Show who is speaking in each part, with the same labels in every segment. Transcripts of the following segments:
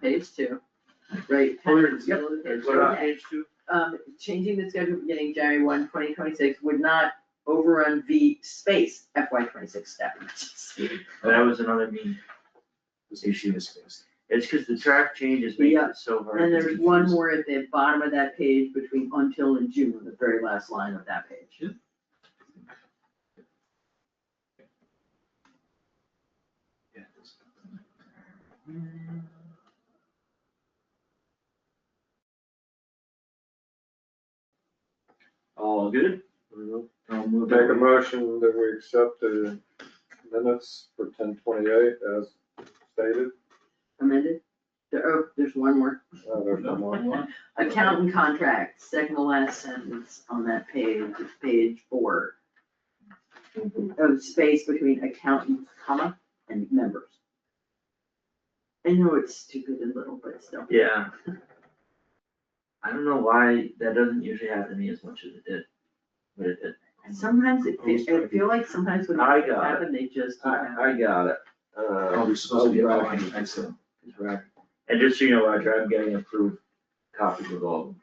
Speaker 1: page two, right? kind of middle of the page
Speaker 2: There's
Speaker 1: two.
Speaker 2: one on page two,
Speaker 1: Um, changing the schedule beginning January one, twenty twenty-six would not overrun the space FY twenty-six step.
Speaker 2: and Oh, that was another me, this issue is fixed. It's cause the track changes make
Speaker 1: Yeah.
Speaker 2: it so hard.
Speaker 1: And
Speaker 2: to
Speaker 1: there's one
Speaker 2: confuse.
Speaker 1: more at the bottom of that page between until and June, the very last line of that page.
Speaker 2: Yeah, it's- All good? I'll move
Speaker 3: Make a
Speaker 2: over.
Speaker 3: motion that we accept the minutes for ten twenty-eight as stated.
Speaker 1: Amended? There, oh, there's one more.
Speaker 3: Uh, there's no more.
Speaker 1: Accountant contract, second to last sentence on that page, page four. Of space between accountant, comma, and members. I know it's stupid and little, but still.
Speaker 2: Yeah. I don't know why that doesn't usually happen to me as much as it did, but it did.
Speaker 1: And Sometimes it, fe- I feel like sometimes when
Speaker 2: I
Speaker 1: it
Speaker 2: got it.
Speaker 1: happen, they just. do that.
Speaker 2: I got it.
Speaker 4: Oh, we're supposed to be applying, excellent.
Speaker 2: And just so you know, Roger, I'm getting approved copies of all of them.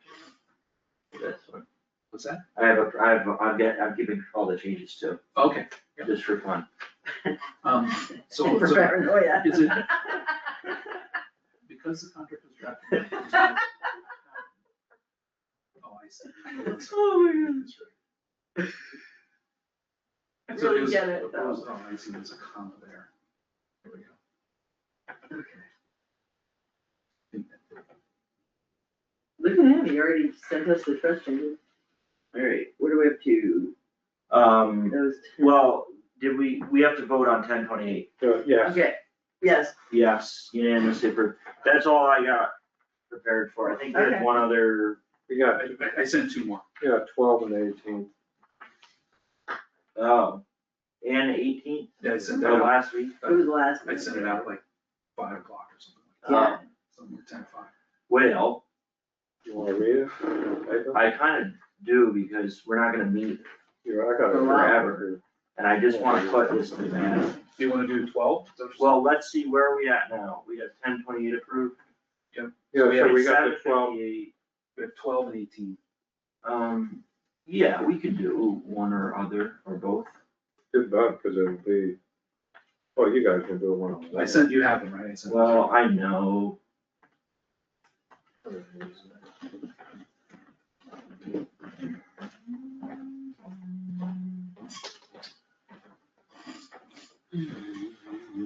Speaker 2: That's fine.
Speaker 4: What's that?
Speaker 2: I have, a- I have, I'm get, I'm giving all the changes too,
Speaker 4: Okay, Yeah.
Speaker 2: just for fun.
Speaker 4: um, so,
Speaker 1: And for
Speaker 4: so,
Speaker 1: paranoia.
Speaker 4: is it? Because the contract was drafted. Oh, I see.
Speaker 1: Oh my
Speaker 4: That's right.
Speaker 1: I
Speaker 4: So it
Speaker 1: really
Speaker 4: was-
Speaker 1: get it,
Speaker 4: was- Oh, I see, there's a comma there. There we go.
Speaker 1: Okay. Look at him, he already sent us the trust changes. Alright, what are we up to?
Speaker 2: Um,
Speaker 1: Those.
Speaker 2: well, did we, we have to vote on ten twenty-eight?
Speaker 3: Uh, Yeah,
Speaker 1: Okay, yes,
Speaker 2: Yes, unanimously approved. That's all I got prepared for. I think there's
Speaker 1: Okay.
Speaker 2: one other,
Speaker 3: we got,
Speaker 4: I, I- I sent two more.
Speaker 3: yeah, twelve and eighteen.
Speaker 2: oh, and eighteen,
Speaker 4: Yeah, I
Speaker 2: oh,
Speaker 4: sent that out,
Speaker 2: last week.
Speaker 1: it was last.
Speaker 4: I sent it out like five o'clock or something like that,
Speaker 1: Yeah.
Speaker 2: Um,
Speaker 4: something like ten, five.
Speaker 2: Well,
Speaker 3: You wanna read it? Paper?
Speaker 2: I kind of do because we're not gonna meet
Speaker 3: Here, I got it
Speaker 1: For a while.
Speaker 3: forever.
Speaker 2: and I just want to put this to bed.
Speaker 4: Do you wanna do twelve?
Speaker 2: Well, let's see, where are we at now? We got ten twenty-eight approved.
Speaker 3: Yeah, so
Speaker 2: have
Speaker 3: we got the
Speaker 2: 758.
Speaker 3: twelve.
Speaker 4: We have twelve and eighteen.
Speaker 2: Um, yeah, we could do one or other or both.
Speaker 3: Good vote, cause it'll be, oh, you guys can do it one.
Speaker 4: I sent, you have them, right? I sent them.
Speaker 2: Well, I know.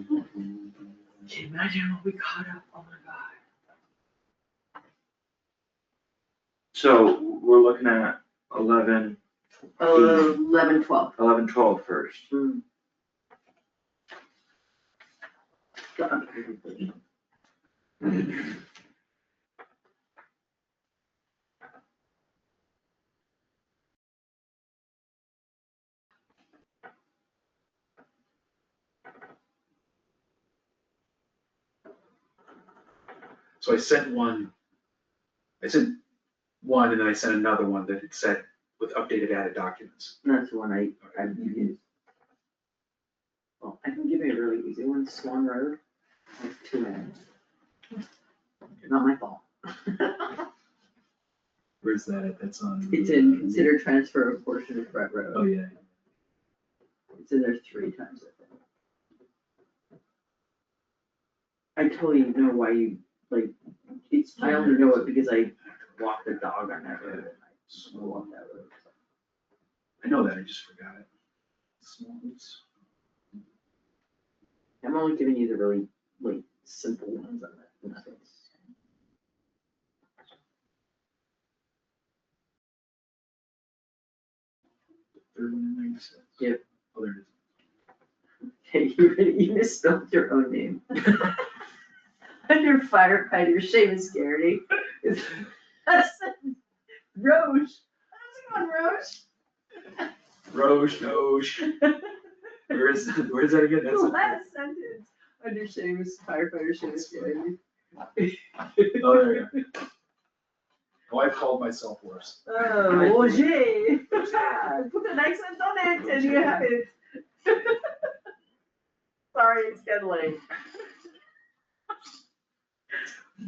Speaker 1: Can you imagine what we caught up, oh my god.
Speaker 2: So we're looking at eleven,
Speaker 1: Uh, Eleven, twelve.
Speaker 2: eleven, twelve first.
Speaker 1: God.
Speaker 4: So I sent one, I sent one and then I sent another one that it said with updated added documents.
Speaker 1: That's the one I, I used. Well, I can give you a really easy one, Swan Road, like two minutes. Not my fault.
Speaker 4: Where's that? That's on. Oh,
Speaker 1: It's in consider transfer of portion of Brett Road,
Speaker 4: yeah.
Speaker 1: it's in there three times. I think. I totally know why you, like, it's, I only know it because I walk the dog on that road and I slow up that road.
Speaker 4: I know that, I just forgot it. Small bits.
Speaker 1: I'm only giving you the really, like, simple ones on that, nothing's.
Speaker 4: Third one in there, you said.
Speaker 1: Yep.
Speaker 4: Oh, there it is.
Speaker 1: Okay, you really- you misspelled your own name. Under firefighter Seamus Garrity. is- Roche, how's it going, Roche?
Speaker 4: Roche, Roche. Where is, where is that again?
Speaker 1: The
Speaker 4: That's-
Speaker 1: last sentence, under Seamus, firefighter Seamus Garrity.
Speaker 4: Oh, there we go. Oh, I called myself worse.
Speaker 1: Oh, Roger, put an accent on it and you have it. Sorry, it's getting late.